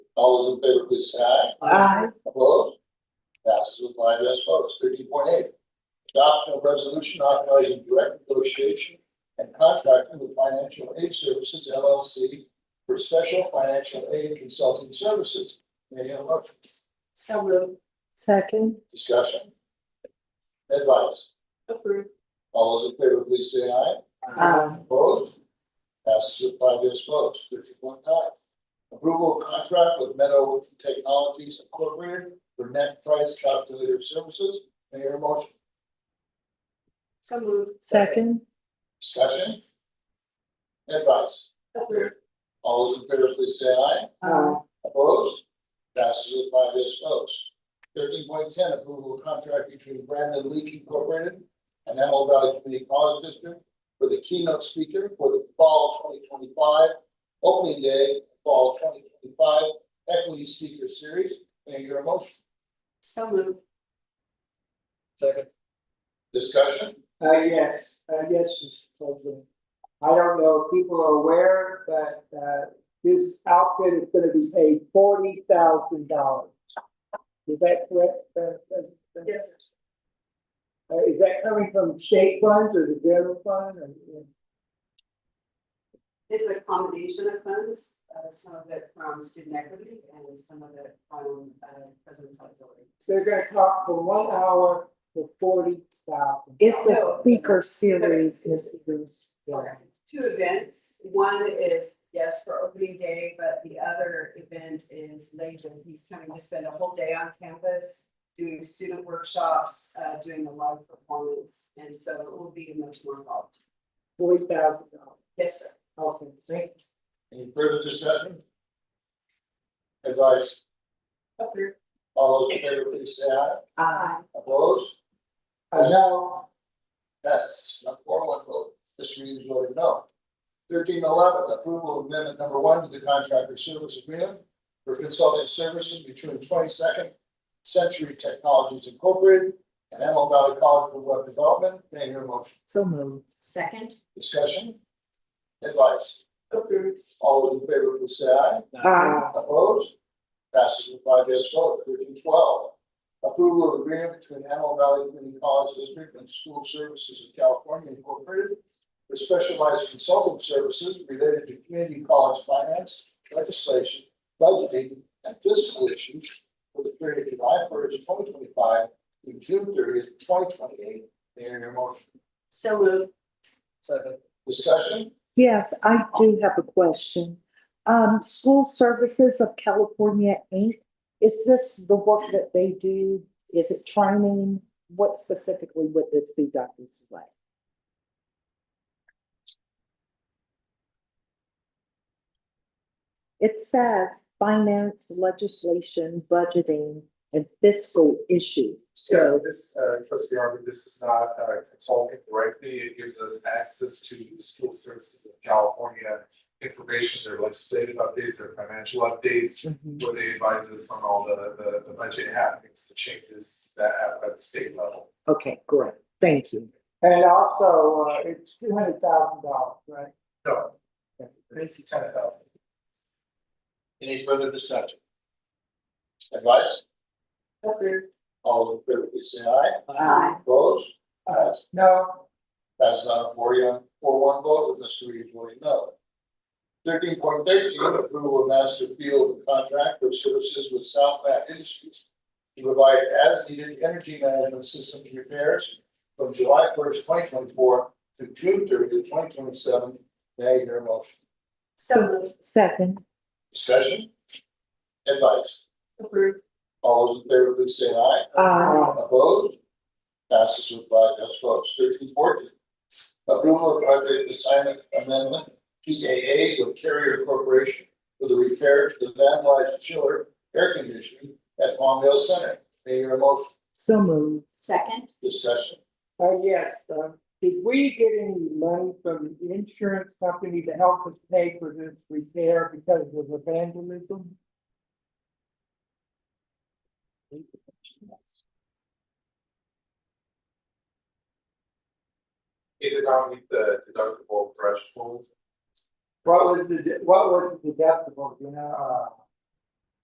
All those in favor, please say aye. Aye. Opposed? Passes with five yes votes. Thirteen point eight. Adoption of resolution authorizing direct negotiation and contracting with Financial Aid Services LLC for special financial aid consulting services. May I have a motion? So moved. Second. Discussion? Advice? Approved. All those in favor, please say aye. Aye. Opposed? Passes with five yes votes, fifty-one nine. Approval of contract with Meadow Technologies Incorporated for net price calculator services. May I hear a motion? So moved. Second. Discussion? Advice? Approved. All those in favor, please say aye. Aye. Opposed? Passes with five yes votes. Thirteen point ten, approval of contract between Brandon Leak Incorporated and Antelope Valley Community College District for the keynote speaker for the fall twenty twenty-five opening day, fall twenty twenty-five equity speaker series. May I hear a motion? So moved. Second. Discussion? Uh, yes, uh, yes, Mr. President. I don't know if people are aware, but, uh, this outfit is gonna be paid forty thousand dollars. Is that correct? uh, uh, Yes. Uh, is that coming from state funds or the general fund or? It's a combination of funds, uh, some of it from student equity and some of it from, uh, president's auxiliary. They're gonna talk for one hour for forty thousand. It's a speaker series, Mr. Bruce. It's Two events, one is, yes, for opening day, but the other event is later, he's coming to spend a whole day on campus. Doing student workshops, uh, doing a live performance, and so it will be much more involved. Forty thousand dollars. Yes, sir. Okay, thank you. Any further discussion? Advice? Approved. All those in favor, please say aye. Aye. Opposed? Uh, now, Yes, not four one vote, Ms. Reeves voted no. Thirteen eleven, approval of amendment number one to the contractor service agreement for consulting services between twenty second Century Technologies Incorporated and Antelope Valley College for Web Development. May I hear a motion? So moved. Second. Discussion? Advice? Approved. All those in favor, please say aye. Aye. Uh, Opposed? Passes with five yes vote. Thirteen twelve. Approval of agreement between Antelope Valley Community College District and School Services of California Incorporated for specialized consulting services related to community college finance, legislation, budgeting, and fiscal issues for the period of July first, twenty twenty-five through June thirtieth, twenty twenty-eight. May I hear your motion? So moved. Discussion? Yes, I do have a question. Um, School Services of California, Inc., is this the work that they do? Is it training? What specifically would this be, Dr. Slay? It says finance, legislation, budgeting, and fiscal issue. Yeah, So, this, uh, trustee Arby, this is not, uh, consulting directly, it gives us access to the school services of California. Information, their legislative updates, their financial updates, Mhm. where they advise us on all the, the, the budget happenings, the changes that happen at the state level. okay, great. Thank you. and also, uh, it's two hundred thousand dollars, right? No. It's ten thousand. Any further discussion? Advice? Approved. All in favor, please say aye. Aye. Opposed? Passed. No, That's not a four one, four one vote with Mr. Reed voting no. Thirteen point thirteen, approval of master field contract for services with South Bath Industries to provide as needed energy management system repairs from July first, twenty twenty four to June 30th, 2027. May I hear a motion? So moved. Second. Discussion? Advice? Approved. All those in favor, please say aye. Aye. Uh, Opposed? Passes with five yes votes. Thirteen fourteen. Approval of project assignment amendment, PAA with Carrier Corporation for the repair to the van life chiller air conditioning at Longdale Center. May I hear a motion? So moved. Second. Discussion. Uh, yes, uh, did we get any money from the insurance company to help us pay for this repair because of the vandalism? It did not meet the deductible threshold, What was the, what was the deductible, you know, uh,